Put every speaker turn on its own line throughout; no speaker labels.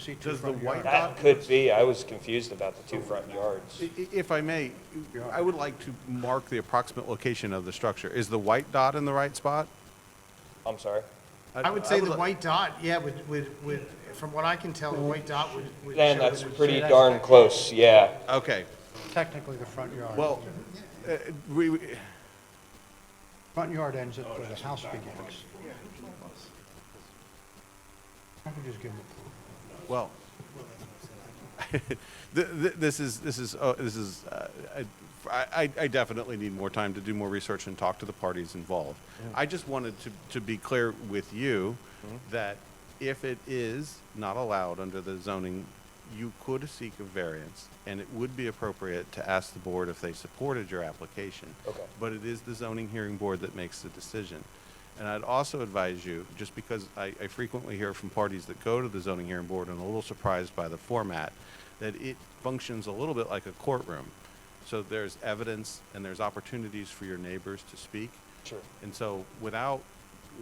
See two
Does the
front
white
yards.
dot-
That could be, I was confused about the two front yards.
I- i- If I may, I would like to mark the approximate location of the structure. Is the white dot in the right spot?
I'm sorry.
I would say the
like-
white dot, yeah, would, would, would, from what I can tell, the white dot would. would
Then
show
that's
it would-
pretty darn close, yeah.
Okay,
Technically, the front yard.
well, uh, we, we-
Front yard ends at where the house begins. I could just give them
well, th- th- this is, this is, uh, this is, uh, I, I- I definitely need more time to do more research and talk to the parties involved. I just wanted to, to be clear with you that if it is not allowed under the zoning, you could seek a variance, and it would be appropriate to ask the board if they supported your application.
Okay.
But it is the zoning hearing board that makes the decision. And I'd also advise you, just because I, I frequently hear from parties that go to the zoning hearing board and are a little surprised by the format, that it functions a little bit like a courtroom. So there's evidence and there's opportunities for your neighbors to speak.
Sure.
And so without,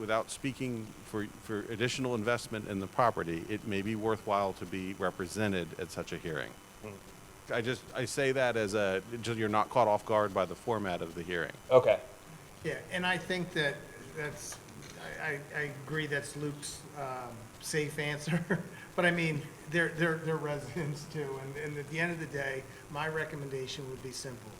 without speaking for, for additional investment in the property, it may be worthwhile to be represented at such a hearing. I just, I say that as a, so you're not caught off guard by the format of the hearing.
Okay,
Yeah, and I think that, that's, I, I, I agree that's Luke's, um, safe answer, but I mean, they're, they're, they're residents too, and, and at the end of the day, my recommendation would be simple.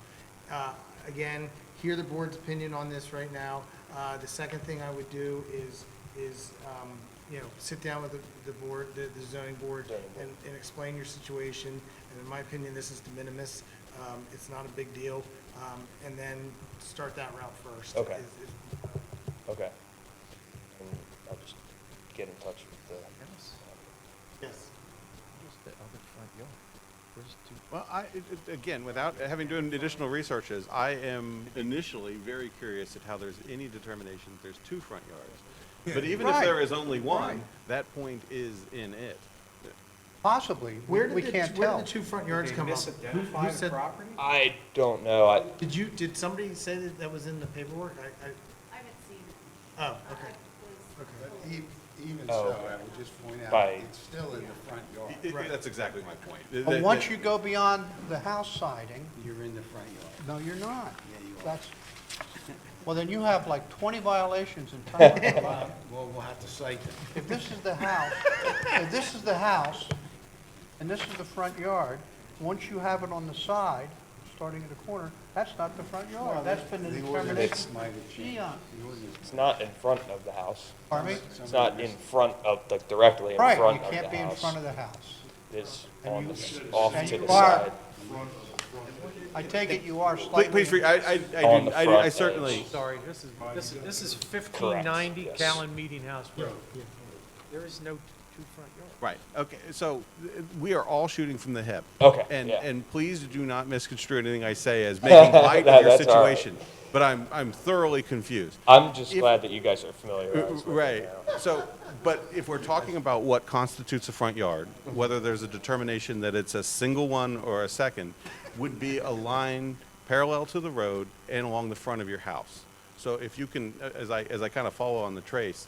Uh, again, hear the board's opinion on this right now, uh, the second thing I would do is, is, um, you know, sit down with the, the board, the the zoning board, and, and explain your situation, and in my opinion, this is de minimis, um, it's not a big deal, um, and then start that route first.
Okay.
Is- uh, is-
okay. And I'll just get in touch with
Yes.
Well, I, it- it- again, without having done additional researches, I am initially very curious at how there's any determination that there's two front yards. But even if there is only one, that point is in it.
Possibly, we
Where did
we
the,
can't
where
tell.
did the two front yards come up? Who- who
Misidentified
said-
property?
the, I don't know, I,
Did you, did somebody say that that was in the paperwork? I,
I haven't seen it.
I, oh,
I
okay.
was-
But e- even
Oh,
so,
okay.
I would just point out,
By-
it's still in the front
I-
yard.
I- That's exactly my point.
But once you go beyond the house siding,
You're in the front yard.
no, you're not.
Yeah, you are.
That's, well, then you have like 20 violations in total.
Well, we'll have to cite them.
If this is the house, if this is the house, and this is the front yard, once you have it on the side, starting at the corner, that's not the front yard. That's been the
The
determination.
ordinance might have changed.
Eon.
The ordinance-
it's not in front of the house.
Pardon me?
It's not in front of, like directly in
Right,
front of the
you
house.
can't be in front of the house.
It's
and
on
you-
the, s- off
and
to
you
the
are-
side.
I take it you are slightly...
Please, please, re- I, I, I
On
do-
the
I do-
front
I
edge.
certainly,
Sorry, this is, this is, this is
Correct,
fifteen ninety
yes.
Callan Meeting House Road. There is no two front yards.
Right. Okay. So th- we are all shooting from the hip.
Okay,
And
yeah.
and please do not misconstrue anything I say as making light
No,
of your
that's all right.
situation. But I'm I'm thoroughly confused.
I'm just
If-
glad that you guys are familiar
Uh,
with it
Right.
now.
So, but if we're talking about what constitutes a front yard, whether there's a determination that it's a single one or a second, would be a line parallel to the road and along the front of your house. So if you can, uh, as I, as I kind of follow on the trace,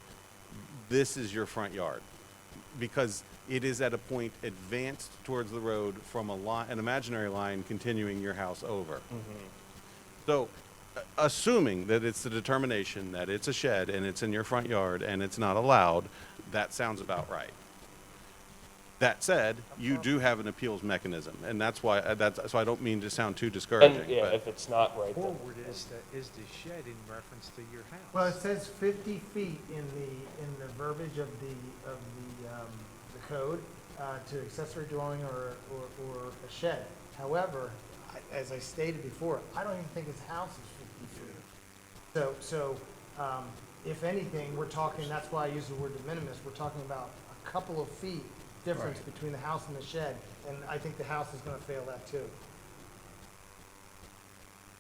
this is your front yard. Because it is at a point advanced towards the road from a line, an imaginary line continuing your house over. So, a- assuming that it's the determination that it's a shed and it's in your front yard and it's not allowed, that sounds about right. That said, you do have an appeals mechanism, and that's why, uh, that's, so I don't mean to sound too discouraging,
And, yeah,
but-
if it's not right, then
Forward is the, is the shed in reference to your house.
Well, it says fifty feet in the, in the verbiage of the, of the, um, the code, uh, to accessory dwelling or, or, or a shed. However, I- as I stated before, I don't even think his house is fifty feet. So, so, um, if anything, we're talking, that's why I use the word de minimis, we're talking about a couple of feet difference between the house and the shed, and I think the house is gonna fail that too.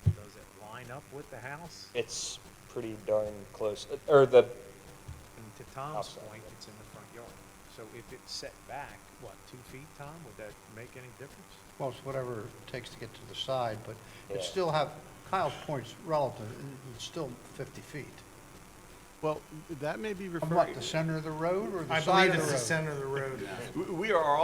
Does it line up with the house?
it's pretty darn close, or the,
And to Tom's
Outside,
point, it's in the front yard. So if it's set back, what, two feet, Tom, would that make any difference?
Well, it's whatever it takes to get to the side, but it
Yeah.
still have, Kyle's point's relative, it- it's still 50 feet.
Well, that may be referring.
From what, the center of the road or the side of the road?
of the road.
We- We are all